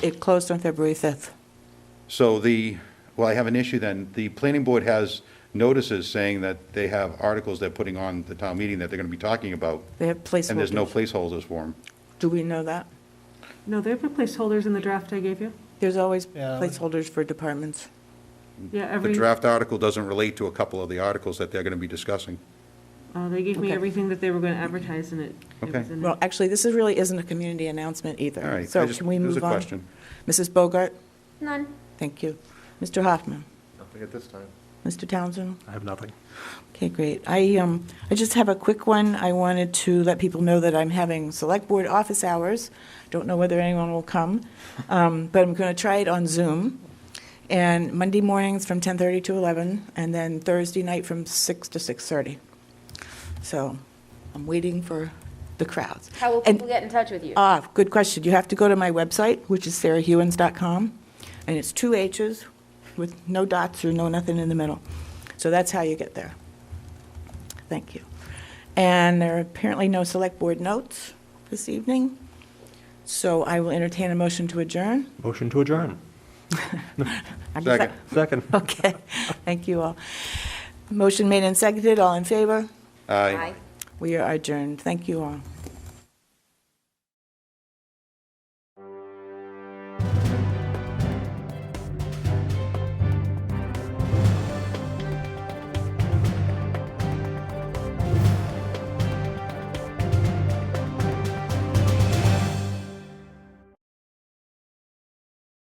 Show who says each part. Speaker 1: It closed on February 5th.
Speaker 2: So the, well, I have an issue then. The planning board has notices saying that they have articles they're putting on the town meeting that they're going to be talking about,
Speaker 1: They have placeholders.
Speaker 2: and there's no placeholders for them.
Speaker 1: Do we know that?
Speaker 3: No, they have placeholders in the draft I gave you.
Speaker 1: There's always
Speaker 4: Yeah, I would-
Speaker 1: placeholders for departments.
Speaker 3: Yeah,
Speaker 2: The
Speaker 3: every,
Speaker 2: draft article doesn't relate to a couple of the articles that they're going to be discussing.
Speaker 3: uh, they gave me
Speaker 1: Okay.
Speaker 3: everything that they were going to advertise and it. it
Speaker 2: Okay.
Speaker 3: was in
Speaker 1: Well,
Speaker 3: it.
Speaker 1: actually, this is really isn't a community announcement either.
Speaker 2: All right, I
Speaker 1: So
Speaker 2: just-
Speaker 1: can we
Speaker 2: it was
Speaker 1: move
Speaker 2: a
Speaker 1: on?
Speaker 2: question.
Speaker 1: Mrs. Bogart?
Speaker 5: None.
Speaker 1: Thank you. Mr. Hoffman?
Speaker 6: Nothing at this time.
Speaker 1: Mr. Townsend?
Speaker 4: I have nothing.
Speaker 1: Okay, great. I, um, I just have a quick one. I wanted to let people know that I'm having select board office hours. Don't know whether anyone will come, um, but I'm going to try it on Zoom. And Monday mornings from 10:30 to 11, and then Thursday night from 6 to 6:30. So I'm waiting for the crowds.
Speaker 5: How will
Speaker 1: And-
Speaker 5: people get in touch with you?
Speaker 1: Ah, good question. You have to go to my website, which is sarahhewens.com, and it's two H's with no dots or no nothing in the middle. So that's how you get there. Thank you. And there are apparently no select board notes this evening, so I will entertain a motion to adjourn.
Speaker 4: Motion to adjourn.
Speaker 1: I'm just-
Speaker 2: Second.
Speaker 4: Second.
Speaker 1: Okay, thank you all. Motion made and seconded, all in favor?
Speaker 2: Aye.
Speaker 5: Aye.
Speaker 1: We are adjourned. Thank you all.